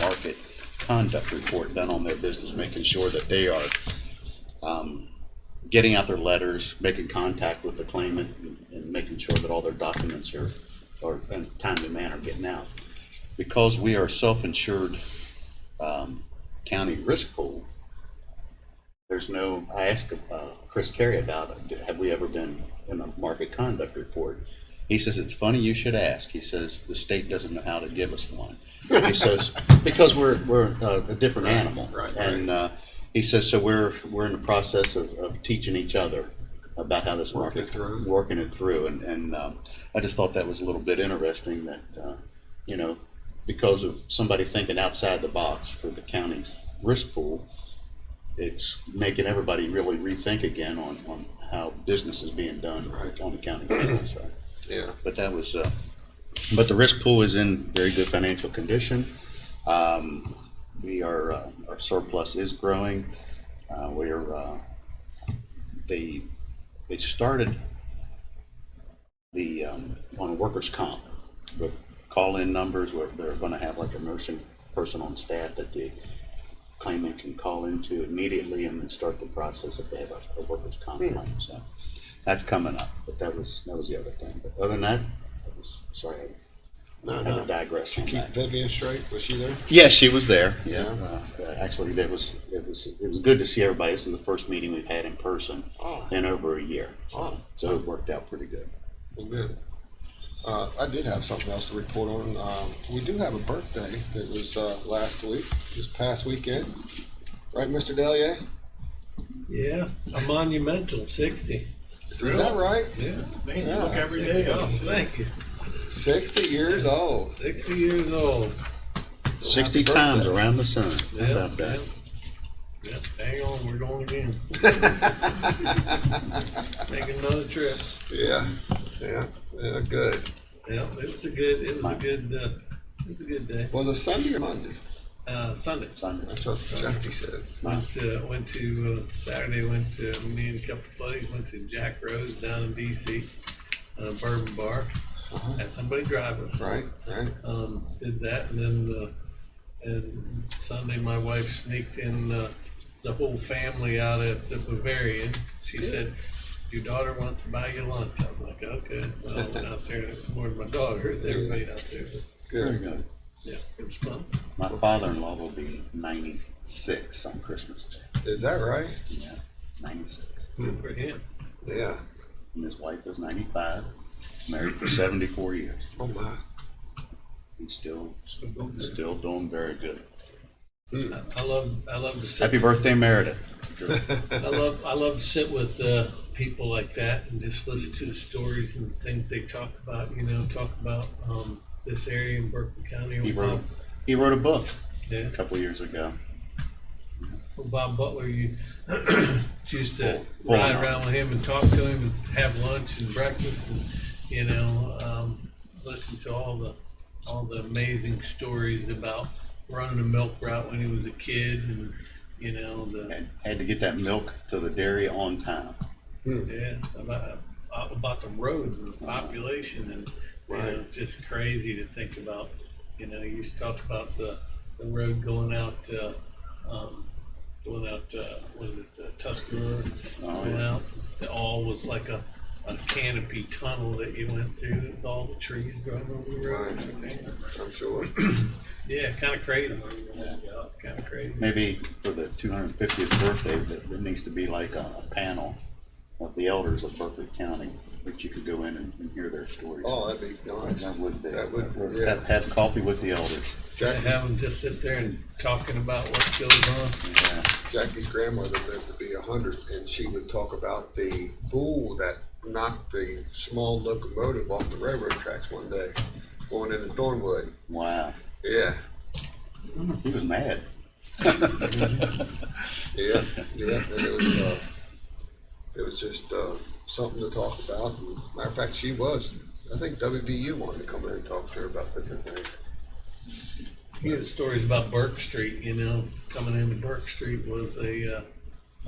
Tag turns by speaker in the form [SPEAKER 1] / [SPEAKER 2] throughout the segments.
[SPEAKER 1] market conduct report done on their business, making sure that they are um, getting out their letters, making contact with the claimant, and- and making sure that all their documents are, are in a timely manner getting out. Because we are self-insured um, county risk pool, there's no, I asked uh, Chris Carey about, it. have we ever been in a market conduct report? He says, it's funny you should ask. He says, the state doesn't know how to give us one. He says, because we're, we're uh, a different animal.
[SPEAKER 2] right, right.
[SPEAKER 1] And uh, he says, so we're, we're in the process of, of teaching each other about how this
[SPEAKER 2] Working
[SPEAKER 1] market,
[SPEAKER 2] it through.
[SPEAKER 1] working it through. And, and um, I just thought that was a little bit interesting that, uh, you know, because of somebody thinking outside the box for the county's risk pool, it's making everybody really rethink again on, on how business is being done
[SPEAKER 2] Right.
[SPEAKER 1] on the county. level, so.
[SPEAKER 2] Yeah,
[SPEAKER 1] But that was, uh, but the risk pool is in very good financial condition. Um, we are, uh, our surplus is growing. Uh, we are, uh, they, they started the, um, on workers' comp with call-in numbers where they're gonna have like a nursing person on staff that the claimant can call into immediately and then start the process if they have a, a workers' comp
[SPEAKER 2] Hmm.
[SPEAKER 1] claim, so. That's coming up, but that was, that was the other thing. But other than that, I was, sorry, I
[SPEAKER 2] no,
[SPEAKER 1] had to
[SPEAKER 2] no.
[SPEAKER 1] digress from
[SPEAKER 2] Keep
[SPEAKER 1] that.
[SPEAKER 2] Vivian straight, was she there?
[SPEAKER 1] Yeah, she was there.
[SPEAKER 2] Yeah.
[SPEAKER 1] Uh, uh, actually, that was it was it was good to see everybody. This is the first meeting we've had in person
[SPEAKER 2] Oh.
[SPEAKER 1] in over a year,
[SPEAKER 2] Oh,
[SPEAKER 1] so it worked out pretty good.
[SPEAKER 2] well, good. Uh, I did have something else to report on. Um, we do have a birthday that was, uh, last week, this past weekend. Right, Mr. Delier?
[SPEAKER 3] Yeah, a monumental sixty.
[SPEAKER 2] Is that right?
[SPEAKER 3] Yeah.
[SPEAKER 4] Man, you look every day up.
[SPEAKER 3] Thank you.
[SPEAKER 2] Sixty years old.
[SPEAKER 3] Sixty years old.
[SPEAKER 1] Sixty
[SPEAKER 2] birthday.
[SPEAKER 1] times around the sun. How
[SPEAKER 3] Yeah,
[SPEAKER 1] about that?
[SPEAKER 3] yeah. Yeah, hang on, we're going again. Make another trip.
[SPEAKER 2] Yeah, yeah, yeah, good.
[SPEAKER 3] Yeah, it was a good, it was a good, uh, it was a good day.
[SPEAKER 2] Was it Sunday or Monday?
[SPEAKER 3] Uh, Sunday.
[SPEAKER 1] Sunday.
[SPEAKER 2] That's what Jackie said.
[SPEAKER 3] Went to, went to, uh, Saturday, went to, me and a couple of buddies, went to Jack Rose down in DC, uh, Bourbon Bar.
[SPEAKER 4] Uh-huh.
[SPEAKER 3] Had somebody drive us.
[SPEAKER 2] Right, right.
[SPEAKER 3] um, did that, and then, uh, and Sunday, my wife sneaked in, uh, the whole family out at the Bavarian. She said, your daughter wants to buy you lunch. I was like, okay, well, I went out there, and ignored my daughters, everybody out there, but,
[SPEAKER 1] Very
[SPEAKER 2] Good.
[SPEAKER 1] good.
[SPEAKER 3] yeah, it was fun.
[SPEAKER 1] My father-in-law will be ninety-six on Christmas Day.
[SPEAKER 2] Is that right?
[SPEAKER 1] Yeah, ninety-six.
[SPEAKER 3] Good for him.
[SPEAKER 2] Yeah.
[SPEAKER 1] And his wife is ninety-five. Married for seventy-four years.
[SPEAKER 2] Oh my.
[SPEAKER 1] And still, still doing very good.
[SPEAKER 3] I I love, I love to sit,
[SPEAKER 1] Happy birthday, Meredith.
[SPEAKER 3] I love, I love to sit with, uh, people like that and just listen to the stories and the things they talk about, you know, talk about, um, this area in Berkeley County.
[SPEAKER 1] He
[SPEAKER 3] Ohio.
[SPEAKER 1] wrote, he wrote a book
[SPEAKER 3] Yeah.
[SPEAKER 1] a couple years ago.
[SPEAKER 3] Well, Bob Butler, you used to
[SPEAKER 1] Full- full
[SPEAKER 3] ride
[SPEAKER 1] amount.
[SPEAKER 3] around with him and talk to him and have lunch and breakfast and, you know, um, listen to all the, all the amazing stories about running a milk route when he was a kid and, you know, the,
[SPEAKER 1] and had to get that milk to the dairy on time.
[SPEAKER 3] yeah, about, about the roads and the population and, you know,
[SPEAKER 2] Right.
[SPEAKER 3] just crazy to think about. You know, you used to talk about the, the road going out, uh, um, going out, uh, was it uh, Tuscarora?
[SPEAKER 1] Oh,
[SPEAKER 3] Going
[SPEAKER 1] yeah.
[SPEAKER 3] out, it all was like a, a canopy tunnel that you went through with all the trees growing over the road. and everything.
[SPEAKER 2] I'm sure.
[SPEAKER 3] Yeah, kind of crazy. Kind of crazy.
[SPEAKER 1] Maybe for the two hundred and fiftieth birthday, that there needs to be like a, a panel of the elders of Berkeley County, that you could go in and, and hear their stories.
[SPEAKER 2] Oh, that'd be nice.
[SPEAKER 1] That would be.
[SPEAKER 2] That would,
[SPEAKER 1] or
[SPEAKER 2] yeah.
[SPEAKER 1] Have, have coffee with the elders.
[SPEAKER 3] And
[SPEAKER 2] Jackie,
[SPEAKER 3] have them just sit there and talking about what goes on.
[SPEAKER 1] Yeah.
[SPEAKER 2] Jackie's grandmother lived to be a hundred, and she would talk about the bull that knocked the small locomotive off the railroad tracks one day, going into Thornwood.
[SPEAKER 1] Wow.
[SPEAKER 2] Yeah,
[SPEAKER 1] He was mad.
[SPEAKER 2] yeah, yeah. And it was, uh, it was just uh, something to talk about. And matter of fact, she was. I think WBU wanted to come in and talk to her about different things.
[SPEAKER 3] You hear the stories about Burke Street, you know, coming into Burke Street was a, uh,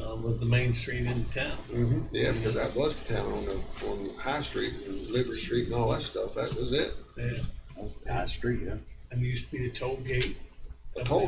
[SPEAKER 3] uh, was the main street in town.
[SPEAKER 2] Mm-hmm. Yeah, because that was the town on the on High Street and Liver Street and all that stuff. That was it.
[SPEAKER 3] Yeah.
[SPEAKER 1] That was the high street, yeah.
[SPEAKER 3] And used to be the toll gate.
[SPEAKER 2] told